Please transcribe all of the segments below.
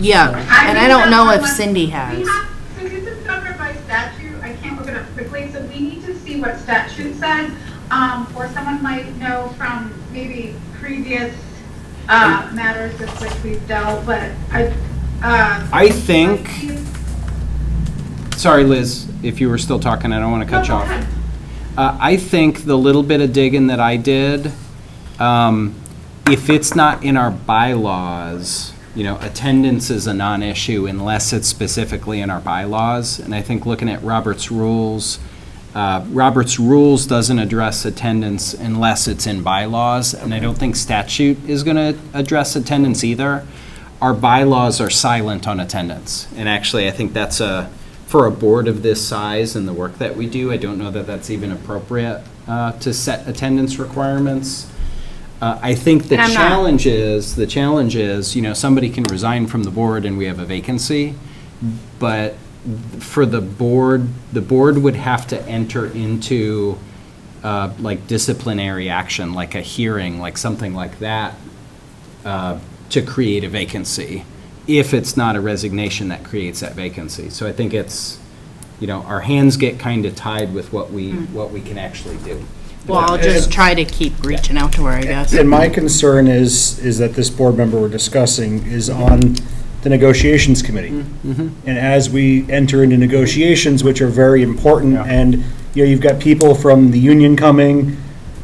Yeah, and I don't know if Cindy has. We have, so this is covered by statute, I can't look it up quickly, so we need to see what statute says. Um, or someone might know from maybe previous, uh, matters with which we've dealt, but I, uh. I think- Sorry, Liz, if you were still talking, I don't want to cut you No, go off. ahead. Uh, I think the little bit of digging that I did, um, if it's not in our bylaws, you know, attendance is a non-issue unless it's specifically in our bylaws. And I think looking at Robert's rules, uh, Robert's rules doesn't address attendance unless it's in bylaws. And I don't think statute is going to address attendance either. Our bylaws are silent on attendance. And actually, I think that's a, for a board of this size and the work that we do, I don't know that that's even appropriate uh, to set attendance requirements. Uh, I think the And I'm not- challenge is, the challenge is, you know, somebody can resign from the board and we have a vacancy, but for the board, the board would have to enter into uh, like disciplinary action, like a hearing, like something like that, uh, to create a vacancy, if it's not a resignation that creates that vacancy. So I think it's, you know, our hands get kind of tied with what we, what we can actually do. Hmm. Well, I'll just try to keep reaching out to her, I guess. And my concern is, is that this board member we're discussing is on the negotiations committee. Mm-hmm. And as we enter into negotiations, which are very important, Yeah. and, you know, you've got people from the union coming,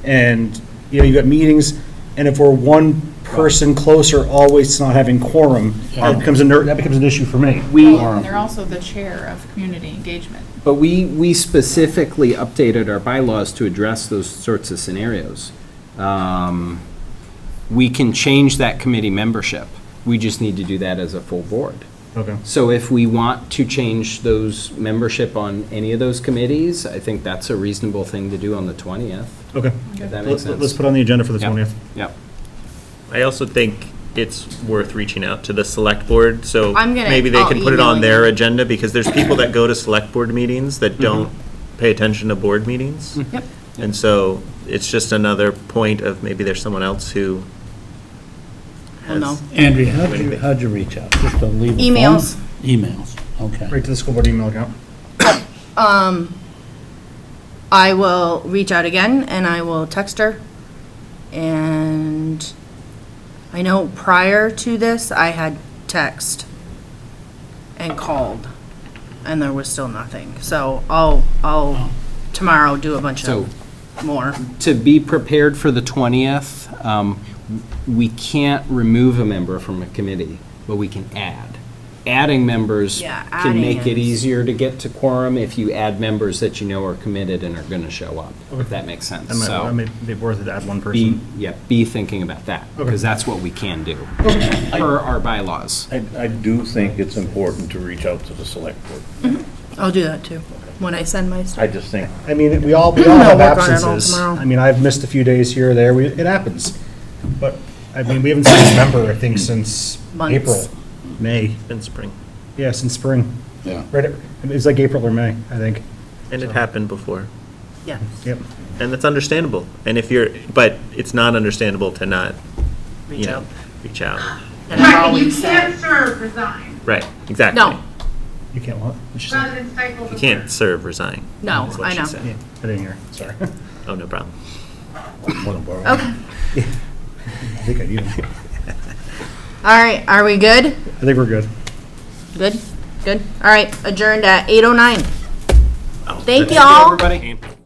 and, you know, you've got meetings, and if we're one person closer always to not having quorum, that becomes a, ner- that becomes an issue for me. We, Well, And they're also the chair of community engagement. But we, we specifically updated our bylaws to address those sorts of scenarios. Um, We can change that committee membership. We just need to do that as a full board. Okay. So if we want to change those membership on any of those committees, I think that's a reasonable thing to do on the 20th, Okay. if that makes Let's sense. let's put on the agenda for the Yep. 20th. Yep. I also think it's worth reaching out to the select board, so I'm gonna- maybe they I'll can put it email on their you. agenda, because there's people that go to select board meetings that don't pay attention to board meetings. Yep. And so it's just another point of maybe there's someone else who Well, no. has, Andrea, how'd you, how'd you reach out? Just to leave a phone? Emails. Emails, okay. Right to the school board email account. Um, I will reach out again and I will text her. And I know prior to this, I had text and called and there was still nothing. So I'll, I'll tomorrow do a bunch So of more. to be prepared for the 20th, um, we can't remove a member from a committee, but we can add. Adding members Yeah, can make adding it is- easier to get to quorum if you add members that you know are committed and are going to show up, if that makes sense. That might- So That may be worth it to add one be, person. yeah, be thinking about that, because that's what we can do, per our bylaws. I, I do think it's important to reach out to the select board. I'll do that too, when I send my stuff. I just think, I mean, we all, we all have work on it all absences. tomorrow. I mean, I've missed a few days here or there, we, it happens. But, I mean, we haven't seen a member, I think, since Months. April, May, in spring. yeah, since spring. Yeah. Right, it was like April or May, I think, And it happened before, Yeah. yep. and that's understandable. And if you're, but it's not understandable to not, you Reach know, out. reach out. And I've Right, you always said, can't serve, resign, Right, exactly. no, You can't what? What'd she say? rather than stifle the. You can't serve, resign. No, is what I she know. said. Yeah, I didn't hear, sorry. Oh, no problem. I think I need it. all right, are we good? I think we're good. Good, good. All right, adjourned at 8:09. Thank oh y'all. Oh. Everybody?